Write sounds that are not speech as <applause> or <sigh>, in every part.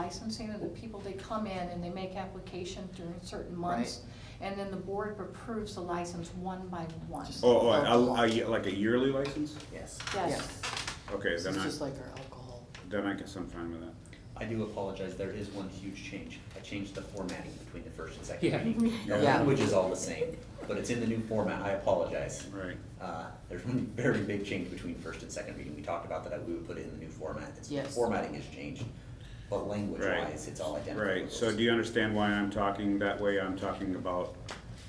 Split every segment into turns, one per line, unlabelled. licensing of the people, they come in and they make application during certain months. And then the board approves the license one by one.
Just-
Oh, oh, I- I- I- like a yearly license?
Yes.
Yes.
Okay,
This
then
is
I,
just like our alcohol.
then I guess I'm fine with that.
I do apologize, there is one huge change. I changed the formatting between the first and second
Yeah.
<laughs>
meeting. The
Yeah.
language is all the same, but it's in the new format, I apologize.
Right.
Uh, There's one very big change between first and second meeting. We talked about that, I- we would put it in the new format. It's-
Yes.
Formatting has changed, but language-wise,
Right.
it's all identical.
Right, so do you understand why I'm talking that way? I'm talking about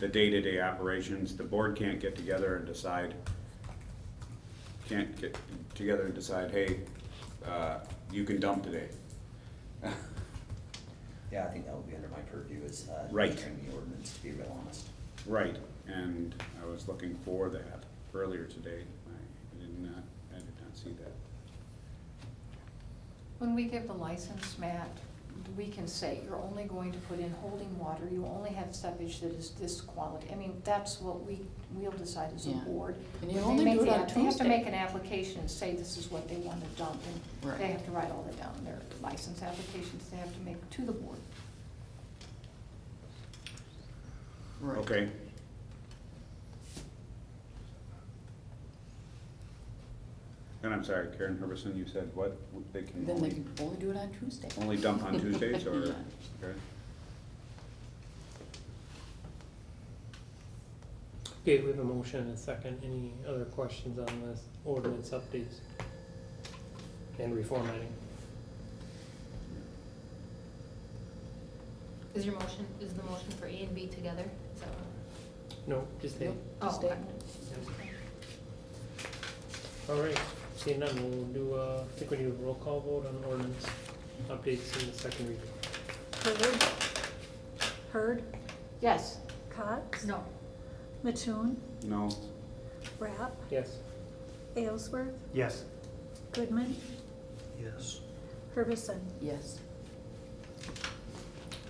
the day-to-day operations. The board can't get together and decide, can't get together and decide, hey, uh, you can dump today.
Yeah, I think that would be under my purview is. uh,
Right.
Entering the ordinance, to be real honest.
Right, and I was looking for that earlier today. I did not, I did not see that.
When we give the license, Matt, we can say, you're only going to put in holding water, you only have stuffage that is this quality. I mean, that's what we, we'll decide as a
Yeah.
board.
And you
When they
only
make
do it
the
on
app- They have to
Tuesday.
make an application and say this is what they want to dump, and they
Right.
have to write all that down, in their license applications they have to make to the board.
Right.
Okay, and I'm sorry, Karen Herberson, you said what? They can
Then they
only.
can only do it on Tuesday.
Only
<laughs>
dump on Tuesdays or,
Yeah.
okay,
Okay, we have a motion and a second. Any other questions on this ordinance updates? And reformatting?
Is your motion, is the motion for A and B together? Is that what?
No, just A?
Yep. Just
Oh,
A.
okay.
All right, seeing none, we'll do, uh, I think we need a roll call vote on ordinance updates in the second reading.
Hurd. Hurd.
Yes,
Cox.
No.
Mattoon.
no,
Rapp.
Yes?
Aylesworth.
Yes.
Goodman.
Yes.
Hervison.
Yes.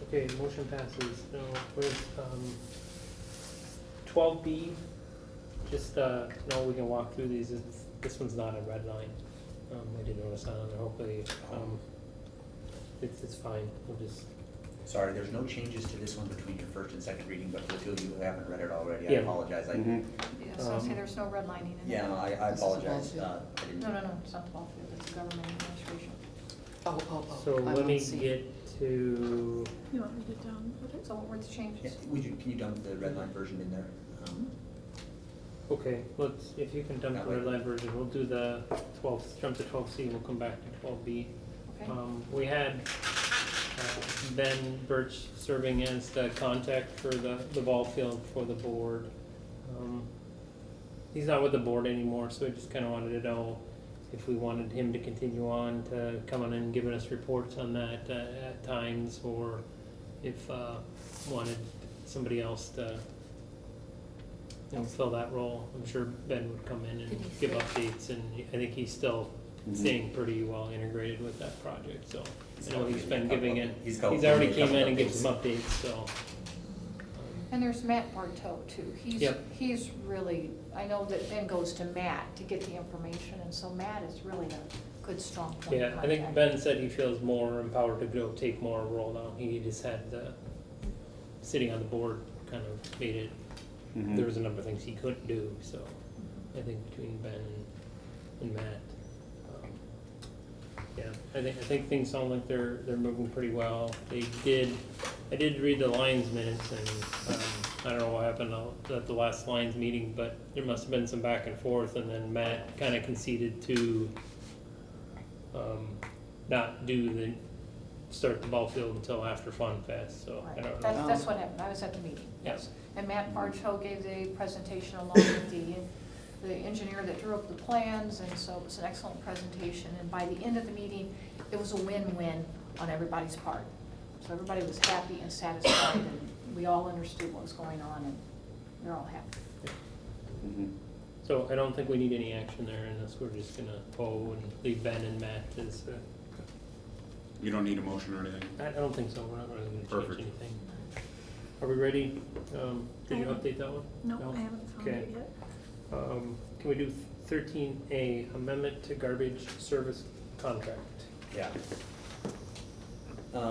Okay, motion passes. Now, with, um, twelve B, just, uh, now we can walk through these. It's, this one's not a red line. Um, I did notice that on there. Hopefully, um, it's, it's fine. We'll just,
Sorry, there's no changes to this one between your first and second reading, but for the two of you who haven't read it already, I
Yeah.
apologize. I
Mhm.
yes, I say
Um,
there's no redlining in it.
Yeah, I I
This is all
apologize.
too.
uh, I didn't.
No, no, no, it's not the ball field, it's the government administration.
Oh, oh, oh.
so
I
let
don't
me
see.
get to,
You want me to download it?
So what were the
Yeah,
changes?
Would you, can you dump the red line version in there? Um,
okay, let's, if you can dump
That
the
way.
red line version, we'll do the twelve, jump to twelve C and we'll come back to twelve B.
Okay,
Um, we had uh, Ben Birch serving as the contact for the, the ball field for the board. Um, He's not with the board anymore, so I just kinda wanted to know if we wanted him to continue on to coming and giving us reports on that uh, at times, or if, uh, wanted somebody else to, you know, fill that role. I'm sure Ben would come in and
Denise.
give updates, and I think he's still
Mm-hmm.
staying pretty well integrated with that project, so. I know he's been giving it,
He's
he's
helped
already
giving me a
came in
couple
and gave some
updates.
updates, so.
and there's Matt Bartow too. He's,
Yep.
he's really, I know that Ben goes to Matt to get the information, and so Matt is really a good, strong point of
Yeah, I think
contact.
Ben said he feels more empowered to go take more role now, he just had the, sitting on the board kind of made it,
Mhm.
Mm-hmm.
there was a number of things he couldn't do, so. I think between Ben and, and Matt. um, Yeah, I think, I think things sound like they're, they're moving pretty well. They did, I did read the Lions minutes and, um, I don't know what happened out- at the last Lions meeting, but there must have been some back and forth and then Matt kinda conceded to, um, not do the, start the ball field until after Fun Fest, so I
Right.
don't know.
That's, that's what happened, I was at the meeting,
Yeah.
yes. And Matt Bartow gave the presentation along with the, the engineer that drew up the plans, and so it was an excellent presentation. And by the end of the meeting, it was a win-win on everybody's part. So everybody was happy and satisfied, and we all understood what was going on, and we are all happy.
Mhm.
So I don't think we need any action there unless we're just gonna poll and leave Ben and Matt as, uh,
You don't need a motion or anything?
I I don't think so, we're not really gonna change
Perfect.
anything. Are we ready? Um, Did you
I haven't-
update that one?
No, I haven't found
Okay.
it yet.
Um, Can we do thirteen A, amendment to garbage service contract?
Yeah,